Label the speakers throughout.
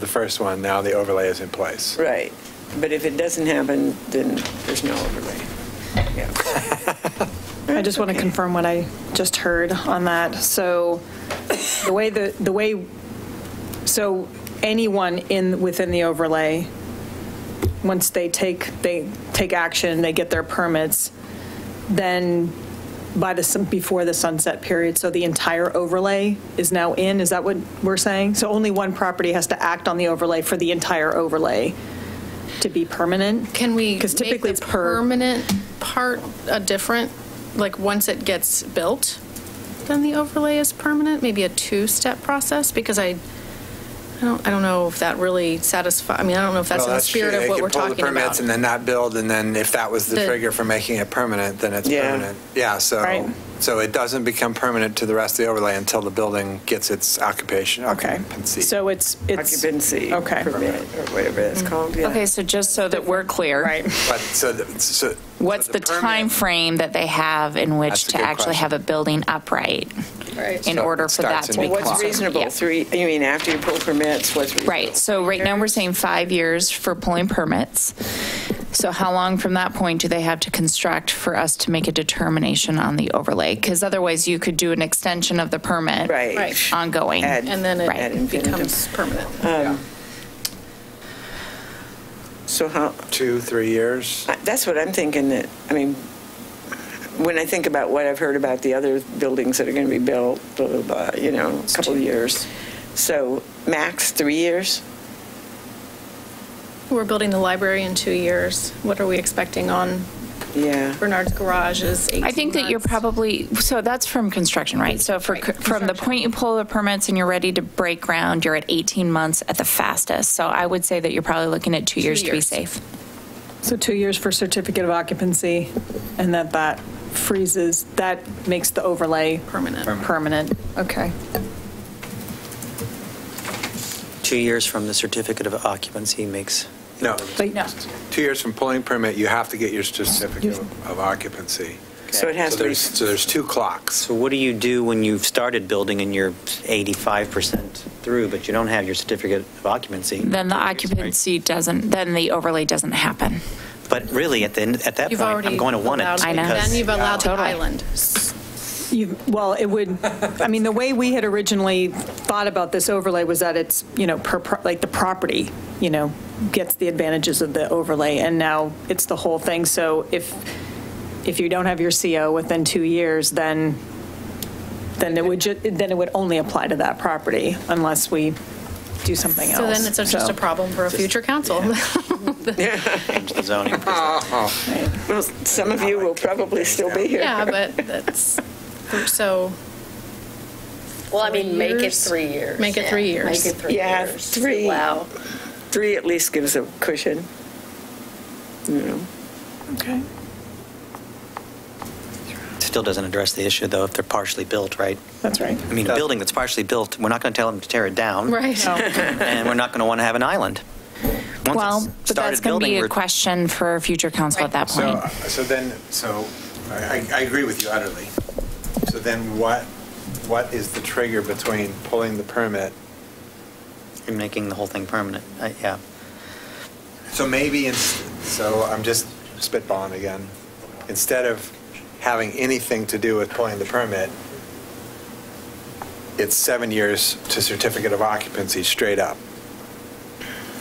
Speaker 1: the first one, now the overlay is in place.
Speaker 2: Right, but if it doesn't happen, then there's no overlay. Yeah.
Speaker 3: I just want to confirm what I just heard on that. So the way the, the way, so anyone in, within the overlay, once they take, they take action, they get their permits, then by the, sun- before the sunset period, so the entire overlay is now in, is that what we're saying? So only one property has to act on the overlay for the entire overlay to be permanent?
Speaker 4: Can we
Speaker 3: Because
Speaker 4: make
Speaker 3: typically
Speaker 4: the
Speaker 3: it's per.
Speaker 4: permanent part a different, like, once it gets built, then the overlay is permanent? Maybe a two-step process? Because I, I don't, I don't know if that really satisfies. I mean, I don't know if that's
Speaker 1: Well,
Speaker 4: in the
Speaker 1: true.
Speaker 4: spirit
Speaker 1: They
Speaker 4: of what
Speaker 1: could
Speaker 4: we're
Speaker 1: pull the
Speaker 4: talking
Speaker 1: permits
Speaker 4: about.
Speaker 1: And then not build, and then if that was the
Speaker 4: The-
Speaker 1: trigger for making it permanent, then it's
Speaker 2: Yeah.
Speaker 1: permanent. Yeah,
Speaker 3: Right.
Speaker 1: so, so it doesn't become permanent to the rest of the overlay until the building gets its occupation,
Speaker 3: Okay,
Speaker 1: occupancy.
Speaker 3: so it's, it's.
Speaker 2: Occupancy
Speaker 3: Okay.
Speaker 2: permit, or whatever that's called, yeah.
Speaker 5: Okay, so just so that we're clear.
Speaker 3: Right.
Speaker 1: But, so, the- so.
Speaker 5: What's
Speaker 1: so
Speaker 5: the
Speaker 1: permit-
Speaker 5: time frame that they have in
Speaker 1: That's
Speaker 5: which
Speaker 1: a
Speaker 5: to
Speaker 1: good
Speaker 5: actually
Speaker 1: question.
Speaker 5: have a building upright in
Speaker 1: So
Speaker 5: order
Speaker 1: it
Speaker 5: for
Speaker 1: starts
Speaker 5: that
Speaker 1: in
Speaker 5: to
Speaker 1: May.
Speaker 5: be
Speaker 2: Well,
Speaker 5: considered?
Speaker 2: What's reasonable,
Speaker 5: Yeah.
Speaker 2: three, you mean, after you pull permits, what's reasonable?
Speaker 5: Right, so right now, we're saying five years for pulling permits. So how long from that point do they have to construct for us to make a determination on the overlay? Because otherwise, you could do an extension of the permit.
Speaker 2: Right.
Speaker 4: Right.
Speaker 5: Ongoing.
Speaker 2: Add-
Speaker 4: And then
Speaker 2: Ad
Speaker 4: it
Speaker 2: infinitum. Um,
Speaker 4: becomes permanent.
Speaker 3: Um,
Speaker 2: So how,
Speaker 1: Two, three years?
Speaker 2: I- that's what I'm thinking that, I mean, when I think about what I've heard about the other buildings that are going to be built, blah, blah, blah, you know, a couple of years. So max three years?
Speaker 4: We're building the library in two years. What are we expecting on
Speaker 2: Yeah.
Speaker 4: Bernard's garage is 18
Speaker 5: I think that you're
Speaker 4: months.
Speaker 5: probably, so that's from construction, right? So for,
Speaker 4: Right,
Speaker 5: from the point you pull the permits and you're ready to break ground, you're at 18 months at the fastest. So I would say that you're probably looking at two years to be
Speaker 4: years.
Speaker 5: safe.
Speaker 3: So two years for certificate of occupancy, and that that freezes, that makes the overlay.
Speaker 4: Permanent.
Speaker 3: Permanent, okay.
Speaker 6: Two years from the certificate of occupancy makes,
Speaker 1: No,
Speaker 3: But
Speaker 1: two years from pulling permit, you have to get your certificate of occupancy.
Speaker 2: So it has
Speaker 1: So
Speaker 2: to be,
Speaker 1: there's, so there's two clocks.
Speaker 6: so what do you do when you've started building and you're 85% through, but you don't have your certificate of occupancy?
Speaker 5: Then the occupancy doesn't, then the overlay doesn't happen.
Speaker 6: But really, at the, end at that
Speaker 4: You've
Speaker 6: point, I'm
Speaker 4: already
Speaker 6: going to want it.
Speaker 4: allowed-
Speaker 5: I know.
Speaker 4: Then you've allowed the
Speaker 5: Totally.
Speaker 4: island.
Speaker 3: You, well, it would, I mean, the way we had originally thought about this overlay was that it's, you know, per, pro- like the property, you know, gets the advantages of the overlay, and now it's the whole thing. So if, if you don't have your CO within two years, then, then it would, ju- then it would only apply to that property unless we do something else.
Speaker 4: So then it's just a problem for a future council.
Speaker 6: Change the zoning. because
Speaker 2: well, some of you will probably still be here.
Speaker 4: Yeah, but that's, so
Speaker 7: Well, I mean, make it
Speaker 4: years?
Speaker 7: three years.
Speaker 4: Make it
Speaker 7: yeah.
Speaker 4: three years.
Speaker 7: Make it three
Speaker 2: Yeah,
Speaker 7: years.
Speaker 2: three.
Speaker 7: Wow.
Speaker 2: Three at least gives a cushion.
Speaker 3: Okay.
Speaker 6: it Still doesn't address the issue, though, if they're partially built, right?
Speaker 3: That's right.
Speaker 6: I mean, a building that's partially built, we're not going to tell them to tear it down.
Speaker 4: Right.
Speaker 6: And we're not going to want to have an island. Once
Speaker 5: Well,
Speaker 6: it's
Speaker 5: but that's
Speaker 6: started
Speaker 5: going to be
Speaker 6: building,
Speaker 5: a
Speaker 6: we're-
Speaker 5: question for future council at that point.
Speaker 1: So, so then, so I, I- I agree with you utterly. So then what, what is the trigger between pulling the permit?
Speaker 6: You're making the whole thing permanent. I- Yeah.
Speaker 1: So maybe, in- so I'm just spitballing again. Instead of having anything to do with pulling the permit, it's seven years to certificate of occupancy straight up,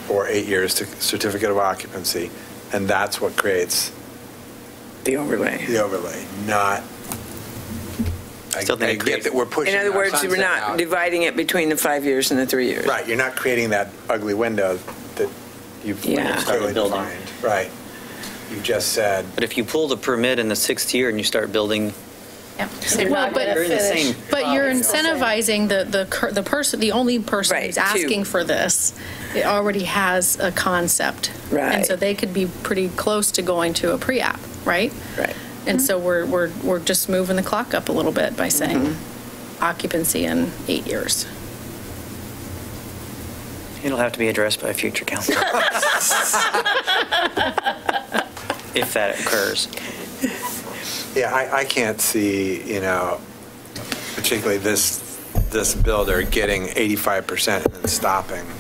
Speaker 1: or eight years to certificate of occupancy, and that's what creates
Speaker 2: The overlay.
Speaker 1: the overlay, not. I
Speaker 6: Still think
Speaker 1: I
Speaker 6: it
Speaker 1: get
Speaker 6: creates-
Speaker 1: that we're pushing.
Speaker 2: In other
Speaker 1: our
Speaker 2: words, we're
Speaker 1: sunset
Speaker 2: not
Speaker 1: out.
Speaker 2: dividing it between the five years and the three years.
Speaker 1: Right, you're not creating that ugly window that you've
Speaker 2: Yeah.
Speaker 1: clearly
Speaker 6: Started building.
Speaker 1: defined. Right. You've just said,
Speaker 6: But if you pull the permit in the sixth year and you start building
Speaker 7: They're
Speaker 4: Well,
Speaker 7: not
Speaker 4: but-
Speaker 7: gonna
Speaker 4: You're
Speaker 6: in the
Speaker 7: finish.
Speaker 6: same
Speaker 4: But you're incentivizing the, the, cur- the person, the only person
Speaker 2: Right,
Speaker 4: who's
Speaker 2: two.
Speaker 4: asking for this, it already has a concept.
Speaker 2: Right.
Speaker 4: And so they could be pretty close to going to a pre-app, right?
Speaker 2: Right.
Speaker 4: And so we're, we're, we're just moving the clock up a little bit by saying
Speaker 2: Mm-hmm.
Speaker 4: occupancy in eight years.
Speaker 6: It'll have to be addressed by future council. If that occurs.
Speaker 1: yeah, I, I can't see, you know, particularly this, this builder getting 85% and then stopping.